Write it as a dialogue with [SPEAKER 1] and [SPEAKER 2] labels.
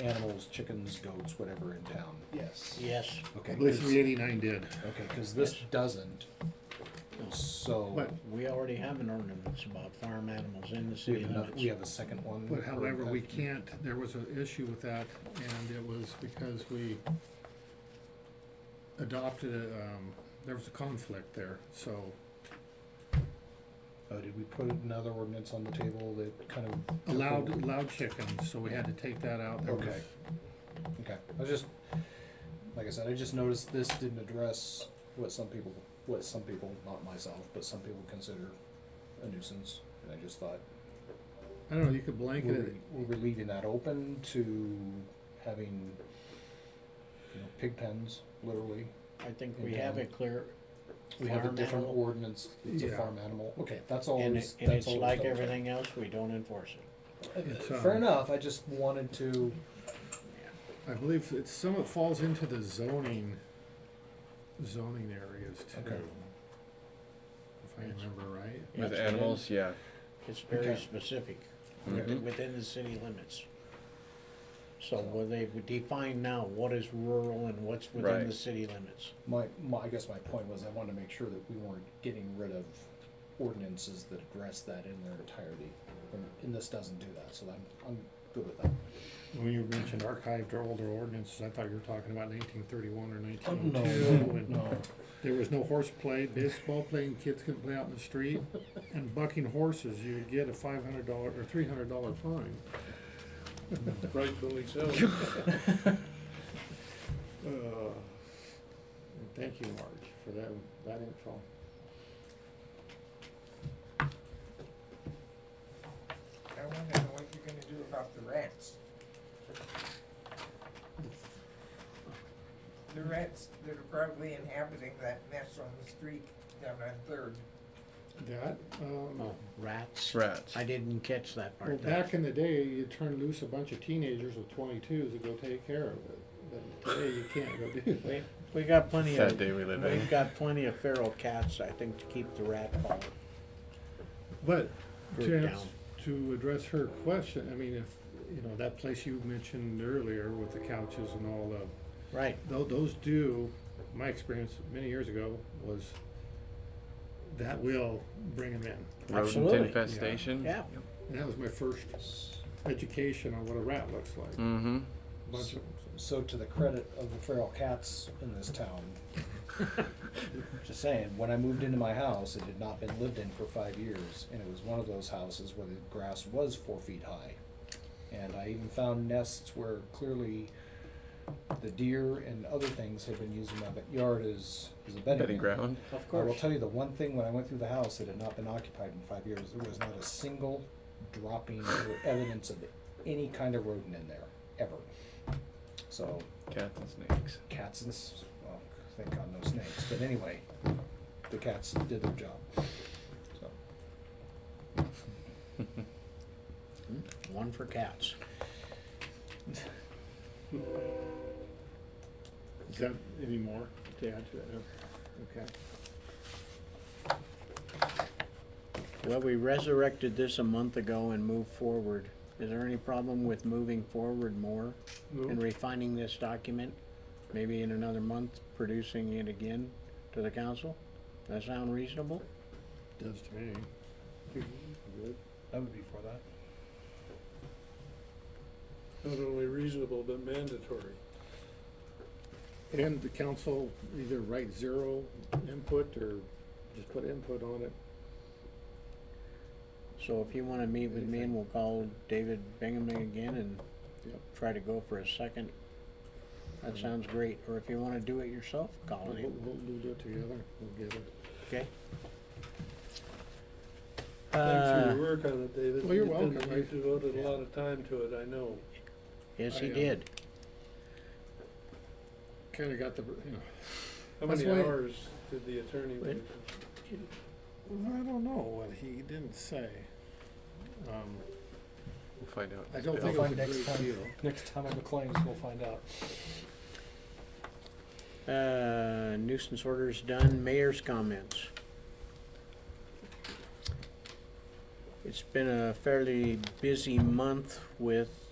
[SPEAKER 1] animals, chickens, goats, whatever in town?
[SPEAKER 2] Yes.
[SPEAKER 3] Yes,
[SPEAKER 1] Okay,
[SPEAKER 2] I believe
[SPEAKER 1] 'cause-
[SPEAKER 2] three eighty-nine did.
[SPEAKER 1] okay, cause this
[SPEAKER 3] Yes.
[SPEAKER 1] doesn't, so
[SPEAKER 2] But,
[SPEAKER 3] we already have an ordinance about farm animals in the
[SPEAKER 1] we
[SPEAKER 3] city
[SPEAKER 1] have another,
[SPEAKER 3] limits.
[SPEAKER 1] we have a second one.
[SPEAKER 2] but
[SPEAKER 1] or
[SPEAKER 2] however, we
[SPEAKER 1] that-
[SPEAKER 2] can't, there was an issue with that, and it was because we adopted, a, um, there was a conflict there, so,
[SPEAKER 1] Oh, did we put another ordinance on the table that kind of? took
[SPEAKER 2] allowed,
[SPEAKER 1] over?
[SPEAKER 2] allowed chickens, so we had to take that out. There was-
[SPEAKER 1] Okay. Okay, I was just, like I said, I just noticed this didn't address what some people, what some people, not myself, but some people consider a nuisance. And I just thought,
[SPEAKER 2] I don't know, you could
[SPEAKER 1] were
[SPEAKER 2] blanket it,
[SPEAKER 1] we, were we leaving that open to having, you know, pig pens, literally?
[SPEAKER 3] I think we have a clear,
[SPEAKER 1] We have a
[SPEAKER 3] Farm
[SPEAKER 1] different
[SPEAKER 3] animal.
[SPEAKER 1] ordinance, it's a
[SPEAKER 2] Yeah.
[SPEAKER 1] farm animal, okay, that's
[SPEAKER 3] and
[SPEAKER 1] always,
[SPEAKER 3] it- and
[SPEAKER 1] that's always.
[SPEAKER 3] it's like
[SPEAKER 1] double check.
[SPEAKER 3] everything else, we don't enforce it.
[SPEAKER 2] It's,
[SPEAKER 1] Uh,
[SPEAKER 2] Mm-hmm.
[SPEAKER 1] Fair
[SPEAKER 2] um,
[SPEAKER 1] enough, I just wanted to,
[SPEAKER 2] I believe it's, some of it falls into the zoning, zoning areas too.
[SPEAKER 1] Okay.
[SPEAKER 2] If I remember right.
[SPEAKER 4] With
[SPEAKER 3] It's
[SPEAKER 4] animals, yeah.
[SPEAKER 3] within- It's very
[SPEAKER 1] Okay. Hmm?
[SPEAKER 3] specific,
[SPEAKER 4] Mhm.
[SPEAKER 3] within the city limits. So where they would define now what is rural and what's within
[SPEAKER 4] Right.
[SPEAKER 3] the city limits.
[SPEAKER 1] my, my, I guess my point was I wanted to make sure that we weren't getting rid of ordinances that address that in their entirety. And, and this doesn't do that, so I'm, I'm good with that.
[SPEAKER 2] When you mentioned archived or older ordinances, I thought you were talking about nineteen thirty-one or nineteen
[SPEAKER 1] No,
[SPEAKER 2] oh two.
[SPEAKER 1] no,
[SPEAKER 2] There was no horseplay, baseball playing, kids couldn't play out in the street, and bucking horses, you would get a five hundred dollar or three hundred dollar fine.
[SPEAKER 5] Rightfully so.
[SPEAKER 2] Uh, and Thank you, Marge, for that, that info.
[SPEAKER 6] I wonder what you're gonna do about the rats. The rats that are probably inhabiting that mess on the street down on Third.
[SPEAKER 2] That, um.
[SPEAKER 3] Oh, rats?
[SPEAKER 4] Rats.
[SPEAKER 3] I didn't catch that
[SPEAKER 2] Well,
[SPEAKER 3] part.
[SPEAKER 2] back in the day, you turn loose a bunch of teenagers with twenty-twos to go take care of it, but today you can't go do that.
[SPEAKER 3] We, we got plenty
[SPEAKER 4] Sad
[SPEAKER 3] of,
[SPEAKER 4] day we live in.
[SPEAKER 3] we've got plenty of feral cats, I think, to keep the rat problem.
[SPEAKER 2] But
[SPEAKER 3] Group
[SPEAKER 2] to, ans-
[SPEAKER 3] down.
[SPEAKER 2] to address her question, I mean, if, you know, that place you mentioned earlier with the couches and all of,
[SPEAKER 3] Right,
[SPEAKER 2] though, those do, my experience many years ago was that will bring them in.
[SPEAKER 4] Rodent
[SPEAKER 3] Absolutely.
[SPEAKER 4] infestation.
[SPEAKER 3] yeah.
[SPEAKER 2] And that was my first education on what a rat looks like,
[SPEAKER 4] Mm-hmm.
[SPEAKER 2] bunch of 'em, so.
[SPEAKER 1] so to the credit of the feral cats in this town, just saying, when I moved into my house, it had not been lived in for five years, and it was one of those houses where the grass was four feet high. And I even found nests where clearly the deer and other things had been using my backyard as, as a bedding
[SPEAKER 4] Bedding
[SPEAKER 1] ground.
[SPEAKER 4] ground.
[SPEAKER 3] Of
[SPEAKER 1] I will
[SPEAKER 3] course.
[SPEAKER 1] tell you the one thing, when I went through the house, it had not been occupied in five years, there was not a single dropping or evidence of any kind of rodent in there, ever. So,
[SPEAKER 4] Cats and snakes.
[SPEAKER 1] cats and, s- well, thank God no snakes, but anyway, the cats did their job. So,
[SPEAKER 3] Hmm? One for cats.
[SPEAKER 2] Is that any more to add to that? Okay.
[SPEAKER 3] Well, we resurrected this a month ago and moved forward. Is there any problem with moving forward more and refining this document? Maybe in another month, producing it again to the council? That sound reasonable?
[SPEAKER 2] Does to me.
[SPEAKER 1] that would be for that.
[SPEAKER 5] Not only reasonable, but mandatory.
[SPEAKER 2] And the council either write zero input or just put input on it.
[SPEAKER 3] So if you wanna meet with me and we'll call David Bingham again and
[SPEAKER 2] Yep.
[SPEAKER 3] try to go for a second, that sounds great. Or if you wanna do it yourself, call
[SPEAKER 2] We'll,
[SPEAKER 3] him.
[SPEAKER 2] we'll we'll do it together. We'll get it.
[SPEAKER 3] Okay.
[SPEAKER 5] Thanks for
[SPEAKER 3] Uh,
[SPEAKER 5] your work on it, David.
[SPEAKER 2] Well, you're
[SPEAKER 5] You've been-
[SPEAKER 2] welcome.
[SPEAKER 5] You devoted a lot of time to it, I know.
[SPEAKER 3] yes, he
[SPEAKER 2] I, uh,
[SPEAKER 3] did.
[SPEAKER 2] Kinda got the, you know,
[SPEAKER 5] How
[SPEAKER 2] That's
[SPEAKER 5] many
[SPEAKER 2] why-
[SPEAKER 5] hours did the attorney
[SPEAKER 3] Wait.
[SPEAKER 5] work?
[SPEAKER 2] I don't know what he didn't say. Um,
[SPEAKER 4] We'll find out.
[SPEAKER 2] I don't
[SPEAKER 4] Yeah.
[SPEAKER 2] think it was a
[SPEAKER 1] Find next
[SPEAKER 2] great
[SPEAKER 1] time.
[SPEAKER 2] deal.
[SPEAKER 1] Next time on the claims, we'll find out.
[SPEAKER 3] Uh, nuisance orders done, mayor's comments. It's been a fairly busy month with